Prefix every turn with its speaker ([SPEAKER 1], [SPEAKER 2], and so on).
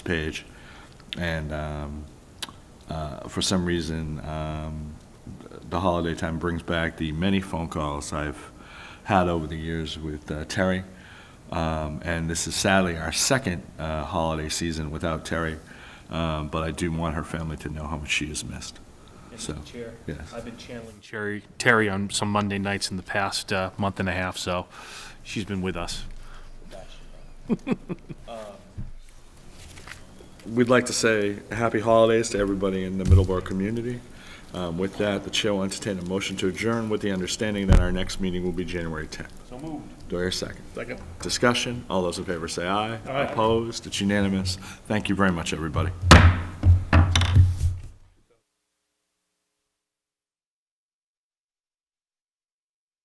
[SPEAKER 1] page, and um, uh, for some reason, um, the holiday time brings back the many phone calls I've had over the years with uh, Terry. Um, And this is sadly our second uh, holiday season without Terry, Um, but I do want her family to know how much she is missed. So,
[SPEAKER 2] Mr. Chair,
[SPEAKER 1] yes.
[SPEAKER 2] I've been channeling Cherry, Terry on some Monday nights in the past uh, month and a half, so she's been with us.
[SPEAKER 1] We'd like to say happy holidays to everybody in the Middleborough community. Um, With that, the chair will entertain a motion to adjourn with the understanding that our next meeting will be January 10th.
[SPEAKER 2] So moved.
[SPEAKER 1] Do I hear a second?
[SPEAKER 2] Second.
[SPEAKER 1] Discussion, all those in favor say aye.
[SPEAKER 2] Aye.
[SPEAKER 1] Opposed, it's unanimous. Thank you very much, everybody.